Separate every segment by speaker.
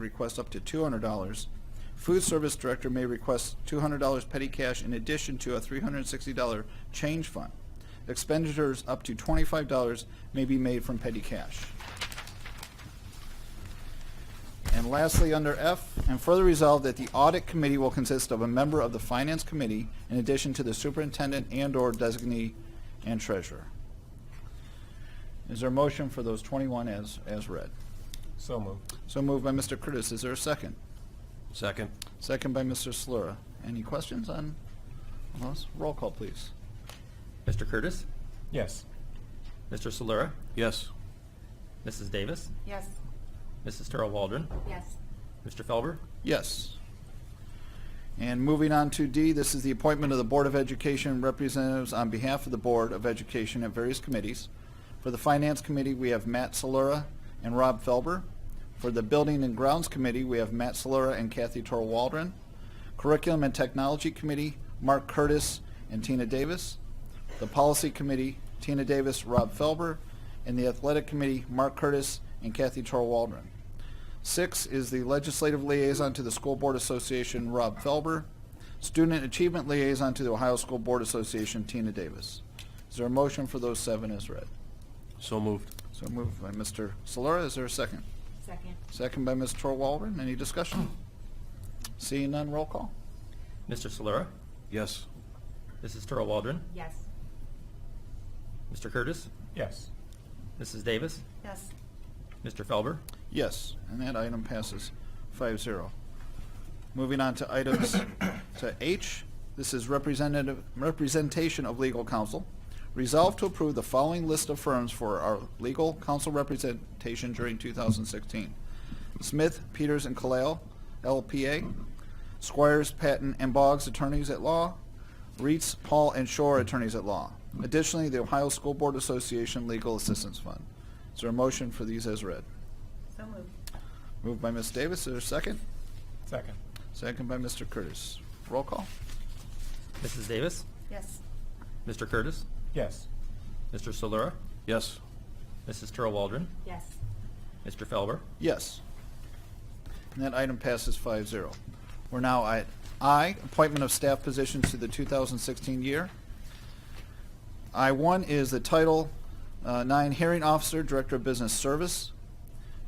Speaker 1: request up to two hundred dollars. Food service director may request two hundred dollars petty cash in addition to a three hundred and sixty dollar change fund. Expenditures up to twenty-five dollars may be made from petty cash. And lastly, under F, and further resolved that the audit committee will consist of a member of the finance committee in addition to the superintendent and/or designee and treasurer. Is there a motion for those twenty-one as, as read?
Speaker 2: So moved.
Speaker 1: So moved by Mr. Curtis. Is there a second?
Speaker 3: Second.
Speaker 1: Second by Mr. Slura. Any questions on on those? Roll call, please.
Speaker 4: Mr. Curtis?
Speaker 2: Yes.
Speaker 4: Mr. Solera?
Speaker 3: Yes.
Speaker 4: Mrs. Davis?
Speaker 5: Yes.
Speaker 4: Mrs. Terrell Waldron?
Speaker 5: Yes.
Speaker 4: Mr. Felber?
Speaker 1: Yes. And moving on to D, this is the appointment of the Board of Education representatives on behalf of the Board of Education at various committees. For the Finance Committee, we have Matt Solera and Rob Felber. For the Building and Grounds Committee, we have Matt Solera and Kathy Torwaldron. Waldron. Curriculum and Technology Committee, Mark Curtis and Tina Davis. The Policy Committee, Tina Davis, Rob Felber. And the Athletic Committee, Mark Curtis and Kathy Torwaldron. Waldron. Six is the Legislative Liaison to the School Board Association, Rob Felber. Student Achievement Liaison to the Ohio School Board Association, Tina Davis. Is there a motion for those seven as read?
Speaker 3: So moved.
Speaker 1: So moved by Mr. Solera. Is there a second?
Speaker 5: Second.
Speaker 1: Second by Ms. Tor Waldron. Any discussion? Seeing none, roll call.
Speaker 4: Mr. Solera?
Speaker 3: Yes.
Speaker 4: Mrs. Terrell Waldron?
Speaker 5: Yes.
Speaker 4: Mr. Curtis?
Speaker 2: Yes.
Speaker 4: Mrs. Davis?
Speaker 5: Yes.
Speaker 4: Mr. Felber?
Speaker 1: Yes, and that item passes 5-0. Moving on to items to H, this is representative, representation of legal counsel. Resolve to approve the following list of firms for our legal counsel representation during 2016. Smith, Peters, and Kalale, LPA. Squires, Patton, and Boggs, attorneys at law. Reitz, Paul, and Shore, attorneys at law. Additionally, the Ohio School Board Association Legal Assistance Fund. Is there a motion for these as read?
Speaker 5: So moved.
Speaker 1: Moved by Ms. Davis, is there a second?
Speaker 2: Second.
Speaker 1: Second by Mr. Curtis. Roll call.
Speaker 4: Mrs. Davis?
Speaker 5: Yes.
Speaker 4: Mr. Curtis?
Speaker 2: Yes.
Speaker 4: Mr. Solera?
Speaker 3: Yes.
Speaker 4: Mrs. Terrell Waldron?
Speaker 5: Yes.
Speaker 4: Mr. Felber?
Speaker 1: Yes. And that item passes 5-0. We're now at I, appointment of staff positions to the 2016 year. I-1 is the Title uh, 9 Hearing Officer, Director of Business Service.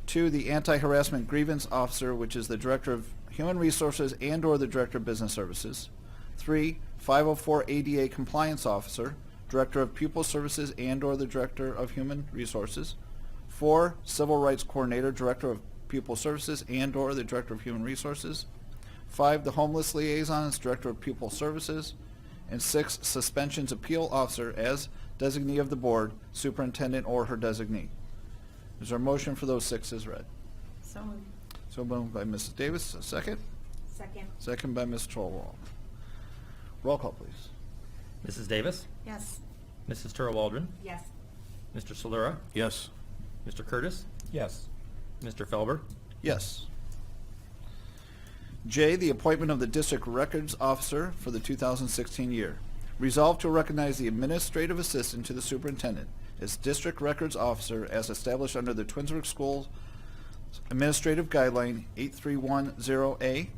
Speaker 1: Two, the Anti-Harassment Grievance Officer, which is the Director of Human Resources and/or the Director of Business Services. Three, 504 ADA Compliance Officer, Director of Pupil Services and/or the Director of Human Resources. Four, Civil Rights Coordinator, Director of Pupil Services and/or the Director of Human Resources. Five, the Homeless Liaison as Director of Pupil Services. And six, Suspensions Appeal Officer as designee of the board, superintendent or her designee. Is there a motion for those six as read?
Speaker 5: So moved.
Speaker 1: So moved by Mrs. Davis, a second.
Speaker 5: Second.
Speaker 1: Second by Ms. Torwald. Roll call, please.
Speaker 4: Mrs. Davis?
Speaker 5: Yes.
Speaker 4: Mrs. Terrell Waldron?
Speaker 5: Yes.
Speaker 4: Mr. Solera?
Speaker 3: Yes.
Speaker 4: Mr. Curtis?
Speaker 2: Yes.
Speaker 4: Mr. Felber?
Speaker 1: Yes. J, the appointment of the district records officer for the 2016 year. Resolved to recognize the administrative assistant to the superintendent as district records officer as established under the Twinsburg Schools Administrative Guideline 8310A.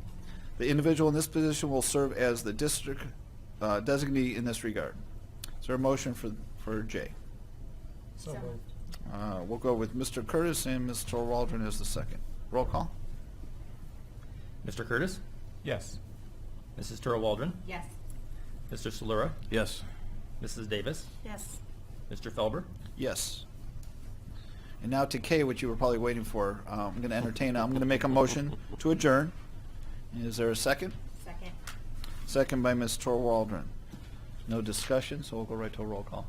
Speaker 1: The individual in this position will serve as the district uh, designee in this regard. Is there a motion for, for J?
Speaker 2: So
Speaker 5: So-
Speaker 2: moved.
Speaker 1: Uh, We'll go with Mr. Curtis and Ms. Waldron as the second. Roll call.
Speaker 4: Mr. Curtis?
Speaker 2: Yes.
Speaker 4: Mrs. Terrell Waldron?
Speaker 5: Yes.
Speaker 4: Mr. Solera?
Speaker 3: Yes.
Speaker 4: Mrs. Davis?
Speaker 5: Yes.
Speaker 4: Mr. Felber?
Speaker 1: Yes. And now to K, which you were probably waiting for. Uh, I'm going to entertain, I'm going to make a motion to adjourn. Is there a second?
Speaker 5: Second.
Speaker 1: Second by Ms. Tor Waldron. No discussion, so we'll go right to a roll call.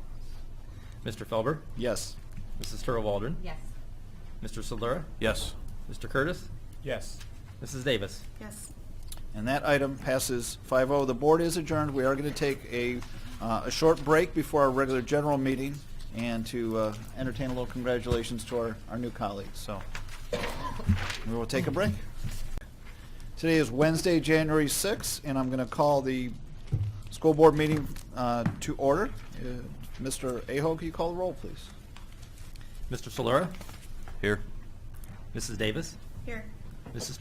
Speaker 4: Mr. Felber?
Speaker 1: Yes.
Speaker 4: Mrs. Terrell Waldron?
Speaker 5: Yes.
Speaker 4: Mr. Solera?
Speaker 3: Yes.
Speaker 4: Mr. Curtis?
Speaker 2: Yes.
Speaker 4: Mrs. Davis?
Speaker 5: Yes.
Speaker 1: And that item passes 5-0. The board is adjourned. We are going to take a, uh, a short break before our regular general meeting and to uh, entertain a little congratulations to our, our new colleagues. So we will take a break. Today is Wednesday, January 6th, and I'm going to call the school board meeting uh, to order. Uh, Mr. Aho, can you call the roll, please?
Speaker 4: Mr. Solera?
Speaker 3: Here.
Speaker 4: Mrs. Davis?
Speaker 5: Here.
Speaker 4: Mrs.